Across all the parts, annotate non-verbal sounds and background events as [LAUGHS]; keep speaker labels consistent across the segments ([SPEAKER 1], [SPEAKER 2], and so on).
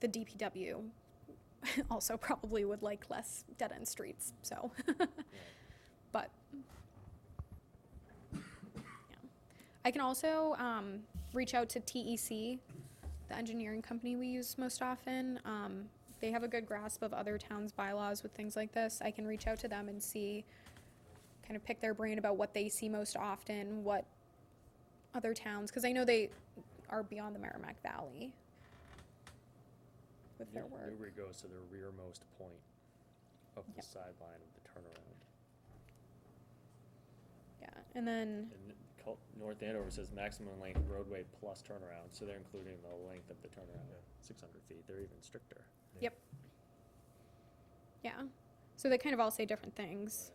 [SPEAKER 1] the DPW [LAUGHS] also probably would like less dead-end streets, so. [LAUGHS] But. yeah. I can also um, reach out to TEC, the engineering company we use most often. Um, They have a good grasp of other towns' bylaws with things like this. I can reach out to them and see, kind of pick their brain about what they see most often, what other towns, because I know they are beyond the Merrimack Valley with their work.
[SPEAKER 2] Newbury goes to the rearmost point of the
[SPEAKER 1] Yep.
[SPEAKER 2] sideline of the turnaround.
[SPEAKER 1] Yeah, and then,
[SPEAKER 2] And the Col- North Andover says maximum length roadway plus turnaround, so they're including the length of the turnaround, six hundred feet, they're even stricter.
[SPEAKER 1] yeah, so they kind of all say different things.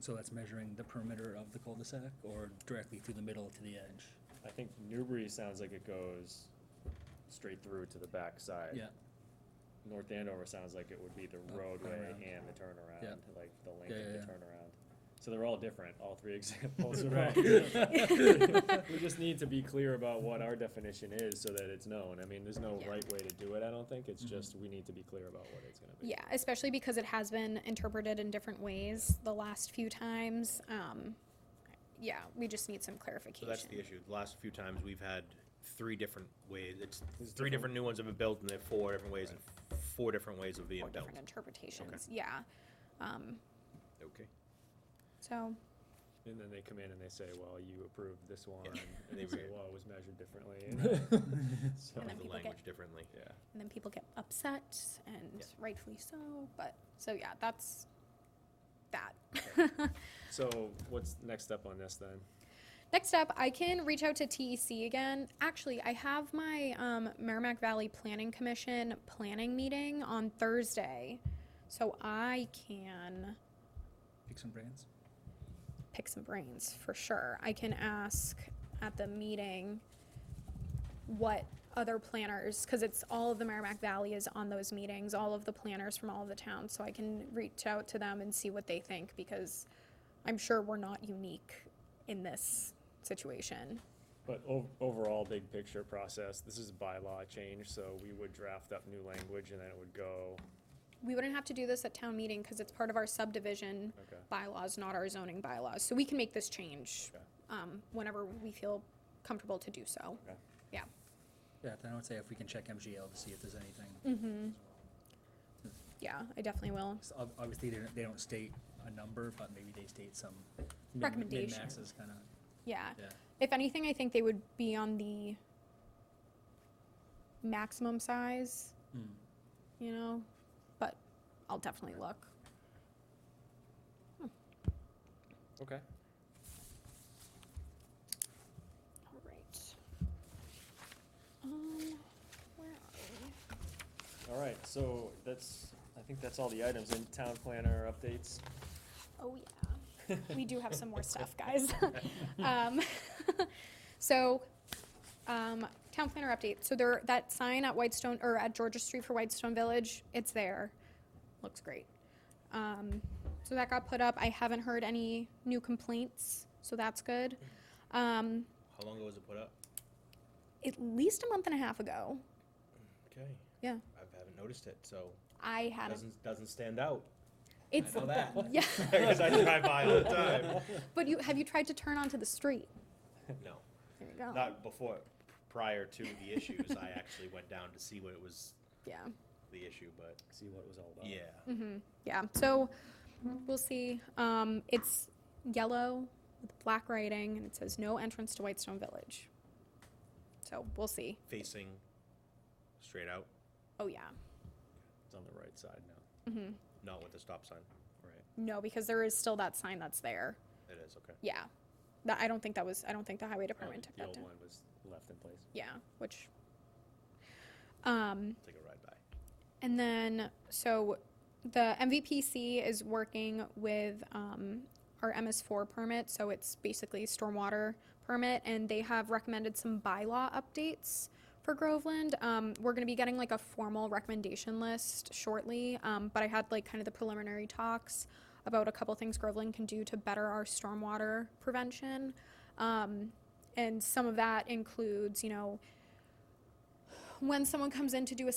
[SPEAKER 3] So that's measuring the perimeter of the cul-de-sac or directly through the middle to the edge?
[SPEAKER 2] I think Newbury sounds like it goes straight through to the backside.
[SPEAKER 3] Yeah,
[SPEAKER 2] North Andover sounds like it would be the
[SPEAKER 3] Uh,
[SPEAKER 2] roadway
[SPEAKER 3] turnaround.
[SPEAKER 2] and the turnaround,
[SPEAKER 3] Yeah.
[SPEAKER 2] like the
[SPEAKER 3] Yeah,
[SPEAKER 2] length of the
[SPEAKER 3] yeah, yeah.
[SPEAKER 2] turnaround. So they're all different, all three [LAUGHS] examples are all
[SPEAKER 3] Right.
[SPEAKER 2] different. We just need to be clear about what our definition is so that it's known. I mean, there's no
[SPEAKER 1] Yeah.
[SPEAKER 2] right way to do it, I don't think. It's
[SPEAKER 3] Mhm.
[SPEAKER 2] just, we need to be clear about what it's gonna be.
[SPEAKER 1] Yeah, especially because it has been interpreted in different ways the last few times. Um, yeah, we just need some
[SPEAKER 4] So
[SPEAKER 1] clarification.
[SPEAKER 4] that's the issue. The last few times, we've had three different ways, it's,
[SPEAKER 2] There's
[SPEAKER 4] three different new ones have been built, and they're four different ways, and four different ways of being
[SPEAKER 1] Or
[SPEAKER 4] built.
[SPEAKER 1] different interpretations, yeah. Um,
[SPEAKER 4] Okay.
[SPEAKER 1] so,
[SPEAKER 2] And then they come in and they say, well, you approved
[SPEAKER 1] [LAUGHS]
[SPEAKER 2] this one, and
[SPEAKER 4] They
[SPEAKER 2] they say,
[SPEAKER 4] re-
[SPEAKER 2] well, it was measured
[SPEAKER 3] [LAUGHS]
[SPEAKER 2] differently. So,
[SPEAKER 1] And then
[SPEAKER 4] The
[SPEAKER 1] people get-
[SPEAKER 4] language differently.
[SPEAKER 2] yeah.
[SPEAKER 1] and then people get upset and
[SPEAKER 4] Yeah.
[SPEAKER 1] rightfully so, but, so yeah, that's that. [LAUGHS]
[SPEAKER 2] So what's next step on this then?
[SPEAKER 1] Next up, I can reach out to TEC again. Actually, I have my um, Merrimack Valley Planning Commission planning meeting on Thursday, so I can
[SPEAKER 3] pick some brands.
[SPEAKER 1] pick some brains for sure. I can ask at the meeting what other planners, because it's all of the Merrimack Valley is on those meetings, all of the planners from all of the towns, so I can reach out to them and see what they think because I'm sure we're not unique in this situation.
[SPEAKER 2] But ov- overall, big picture process, this is a bylaw change, so we would draft up new language and then it would go,
[SPEAKER 1] We wouldn't have to do this at town meeting because it's part of our subdivision
[SPEAKER 2] okay.
[SPEAKER 1] bylaws, not our zoning bylaws. So we can make this change
[SPEAKER 2] Okay.
[SPEAKER 1] um, whenever we feel comfortable to do so.
[SPEAKER 2] Okay.
[SPEAKER 1] Yeah.
[SPEAKER 3] Yeah, then I would say if we can check MGL to see if there's anything.
[SPEAKER 1] Mm-hmm. Yeah, I definitely will.
[SPEAKER 3] 'Cause ob- Obviously, they don't, they don't state a number, but maybe they state some min-
[SPEAKER 1] Recommendation.
[SPEAKER 3] min-maxes kind of,
[SPEAKER 1] Yeah.
[SPEAKER 3] yeah.
[SPEAKER 1] If anything, I think they would be on the maximum size,
[SPEAKER 3] Hmm.
[SPEAKER 1] you know, but I'll definitely look. Hmm.
[SPEAKER 2] Okay.
[SPEAKER 1] All right. Um, where are we?
[SPEAKER 2] All right, so that's, I think that's all the items in town planner updates.
[SPEAKER 1] Oh, yeah. We do have some more stuff, guys. [LAUGHS] Um, [LAUGHS] So, um, town planner update. So there, that sign at Whitestone, or at Georgia Street for Whitestone Village, it's there. Looks great. Um, So that got put up. I haven't heard any new complaints, so that's good. Um,
[SPEAKER 4] How long ago was it put up?
[SPEAKER 1] At least a month and a half ago,
[SPEAKER 4] Okay.
[SPEAKER 1] Yeah.
[SPEAKER 4] I haven't noticed it, so
[SPEAKER 1] I had, a-
[SPEAKER 4] doesn't, doesn't stand out. [LAUGHS] I
[SPEAKER 1] it's,
[SPEAKER 4] know that.
[SPEAKER 1] [LAUGHS] yeah,
[SPEAKER 4] Because I drive by all the time.
[SPEAKER 1] but you, have you tried to turn onto the street?
[SPEAKER 4] [LAUGHS] No,
[SPEAKER 1] There you go.
[SPEAKER 4] not before, prior to the issues, I actually went down to see what it was,
[SPEAKER 1] Yeah.
[SPEAKER 4] the issue, but, uh,
[SPEAKER 2] See what it was all about.
[SPEAKER 4] yeah.
[SPEAKER 1] Mm-hmm. Yeah. So we'll see. Um, it's yellow with black writing, and it says no entrance to Whitestone Village. So we'll see.
[SPEAKER 4] Facing straight out,
[SPEAKER 1] Oh yeah.
[SPEAKER 2] It's on the right side now.
[SPEAKER 1] Mm-hmm.
[SPEAKER 4] not with the stop sign.
[SPEAKER 2] Right.
[SPEAKER 1] No, because there is still that sign that's there.
[SPEAKER 4] It is, okay.
[SPEAKER 1] Yeah. That I don't think that was. I don't think the highway department took
[SPEAKER 2] The
[SPEAKER 1] that
[SPEAKER 2] old
[SPEAKER 1] down.
[SPEAKER 2] one was left in place.
[SPEAKER 1] Yeah. Which. Um.
[SPEAKER 4] Take a ride by.
[SPEAKER 1] And then, so the MVPC is working with um, our MS4 permit, so it's basically a stormwater permit, and they have recommended some bylaw updates for Groveland. Um, we're going to be getting like a formal recommendation list shortly, um, but I had like kind of the preliminary talks about a couple things Groveland can do to better our stormwater prevention. Um, and some of that includes, you know, when someone comes in to do a